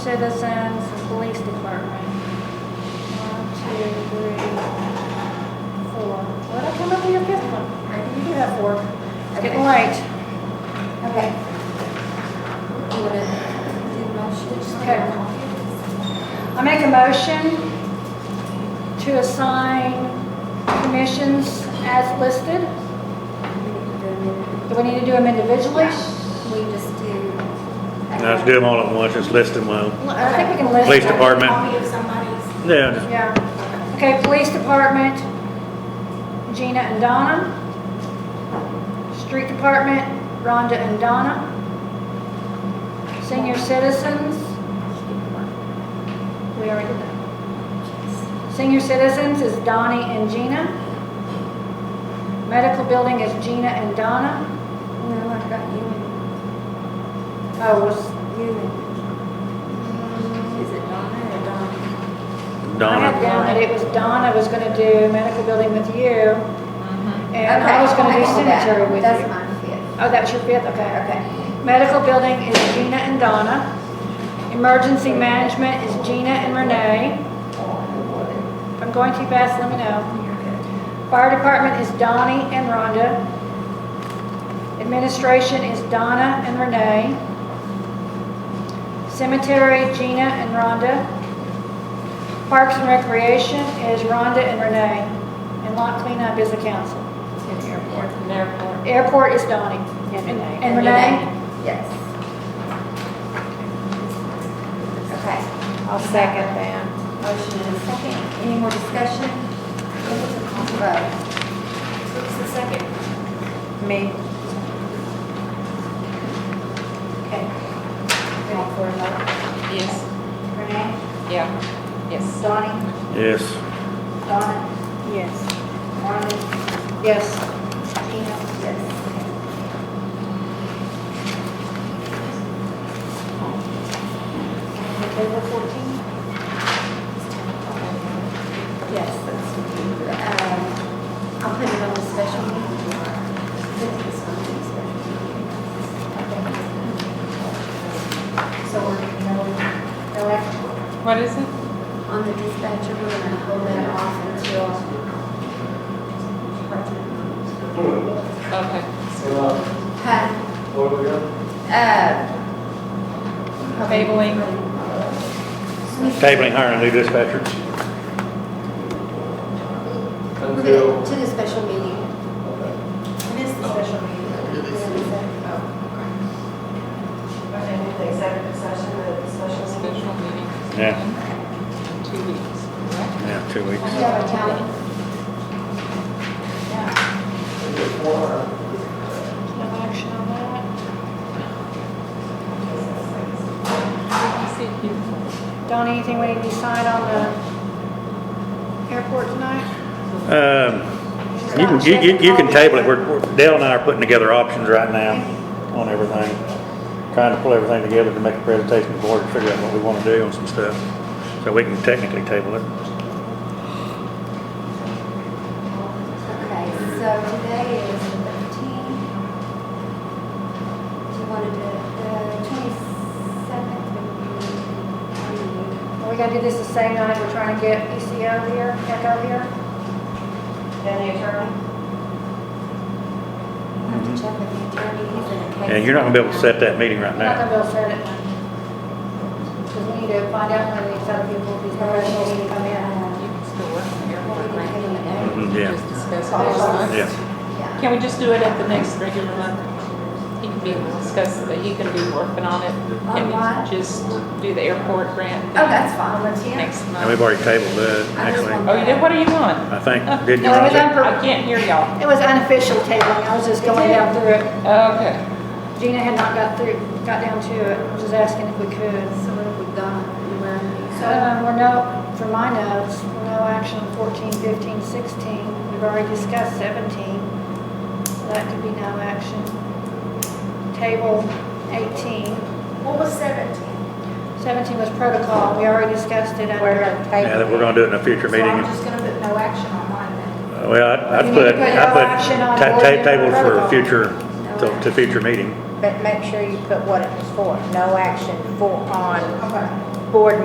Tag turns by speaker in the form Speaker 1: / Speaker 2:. Speaker 1: Citizens and Police Department. One, two, three, four. Well, I come up with your fifth one. Maybe you do have four. It's getting late.
Speaker 2: Okay. You wanna do the motion?
Speaker 1: Okay. I make a motion to assign commissions as listed. Do we need to do them individually?
Speaker 2: We just do.
Speaker 3: Now, Let's do them all at once, just list them well.
Speaker 1: I think we can list them.
Speaker 3: Police department.
Speaker 4: Copy of somebody's.
Speaker 3: Yeah, just-
Speaker 1: Yeah. Okay, police department, Gina and Donna. Street department, Rhonda and Donna. Senior citizens. We already did that. Senior citizens is Donnie and Gina. Medical building is Gina and Donna.
Speaker 2: No, I got you and,
Speaker 1: Oh, was,
Speaker 2: you and, is it Donna or Don?
Speaker 1: I had
Speaker 3: Donna,
Speaker 1: down that it was Donna was gonna do medical building with you. And
Speaker 2: Mm-hmm. Okay,
Speaker 1: I was gonna do
Speaker 2: can do that.
Speaker 1: cemetery with you.
Speaker 2: That's my fifth.
Speaker 1: Oh, that was your fifth, okay.
Speaker 2: Okay.
Speaker 1: Medical building is Gina and Donna. Emergency management is Gina and Renee. If I'm going too fast, let me know. Fire department is Donnie and Rhonda. Administration is Donna and Renee. Cemetery, Gina and Rhonda. Parks and recreation is Rhonda and Renee. And lot cleanup is the council. Airport is Donnie and Renee. And Renee?
Speaker 2: Yes. Okay.
Speaker 1: I'll second that.
Speaker 2: Motion and a second. Any more discussion? Vote.
Speaker 4: Who's the second?
Speaker 1: Me.
Speaker 2: Okay. We all for a vote?
Speaker 5: Yes.
Speaker 2: Renee?
Speaker 5: Yeah. Yes.
Speaker 2: Donnie?
Speaker 3: yes,
Speaker 2: Donna?
Speaker 1: Yes.
Speaker 2: Rhonda?
Speaker 1: Yes.
Speaker 2: Gina? Yes.
Speaker 1: Table 14?
Speaker 2: Yes, that's what we do. Um, I'll put it on a special meeting. Put this on a special meeting. So we're, no, no act
Speaker 5: What is it?
Speaker 2: on the dispatcher, we're gonna hold that off until.
Speaker 5: Okay.
Speaker 2: Huh?
Speaker 6: What we got?
Speaker 2: Uh.
Speaker 5: Tabling.
Speaker 3: tabling hiring a new dispatcher.
Speaker 2: We're gonna, to the special meeting.
Speaker 4: It is the special
Speaker 3: Oh,
Speaker 4: meeting. Okay, with the executive session, the special meeting.
Speaker 5: Special meeting.
Speaker 3: Yeah.
Speaker 5: In Two weeks, correct?
Speaker 3: Yeah, two
Speaker 2: Do
Speaker 3: weeks.
Speaker 2: you have a calendar?
Speaker 1: No action on that.
Speaker 5: I see it here.
Speaker 1: Don, anything we need to decide on the airport tonight?
Speaker 3: Um, You can, you- you, you can table it, we're, we're- Dale and I are putting together options right now on everything. Trying to pull everything together to make a presentation to the board and figure out what we wanna do on some stuff. So we can technically table it.
Speaker 2: Okay, so today is the 13th. Do you want to do the 27th?
Speaker 1: Are we gonna do this the same night we're trying to get ECO here, Echo here?
Speaker 4: Then the attorney?
Speaker 2: I have to check with the attorney, he's in a case.
Speaker 3: Mm-hmm. And you're not gonna be able to set that meeting right
Speaker 1: I'm not
Speaker 3: now.
Speaker 1: gonna be able to set it. Because we need to find out when these other people, these professionals need to come in.
Speaker 5: You can still work in the airport, right?
Speaker 3: Mhm, Yeah,
Speaker 5: Just discuss it next month.
Speaker 3: yeah.
Speaker 2: Yeah.
Speaker 5: Can we just do it at the next regular month? He can be discussing, but he can be working on it. Can
Speaker 2: On what?
Speaker 5: we just do the airport grant
Speaker 2: Oh, that's fine, let's hear.
Speaker 5: next
Speaker 3: And we've
Speaker 5: month?
Speaker 3: already tabled that, actually.
Speaker 5: Oh, you did, what are you on?
Speaker 3: I think, didn't you,
Speaker 1: No, it was
Speaker 3: Roger?
Speaker 1: on
Speaker 5: I can't hear y'all.
Speaker 1: It was unofficial tabling, I was just going down through it.
Speaker 5: Okay.
Speaker 1: Gina had not got through, got down to it, I was just asking if we could.
Speaker 2: So what have we done? Where are we?
Speaker 1: So, um, we're no, for my notes, we're no action on 14, 15, 16. We've already discussed 17, so that could be no action. Table 18.
Speaker 4: What was seventeen?
Speaker 1: 17 was protocol, we already discussed it under.
Speaker 3: Yeah, that we're gonna do it in a future
Speaker 4: So
Speaker 3: meeting.
Speaker 4: I'm just gonna put no action on mine then.
Speaker 3: Well, I-
Speaker 1: You
Speaker 3: I'd
Speaker 1: need to
Speaker 3: put,
Speaker 1: put
Speaker 3: I'd
Speaker 1: no
Speaker 3: put,
Speaker 1: action on
Speaker 3: ta-
Speaker 1: board
Speaker 3: ta-
Speaker 1: member
Speaker 3: table for
Speaker 1: protocol.
Speaker 3: future, to, to future meeting.
Speaker 7: But make sure you put what it was for, no action for, on
Speaker 4: Okay.
Speaker 1: board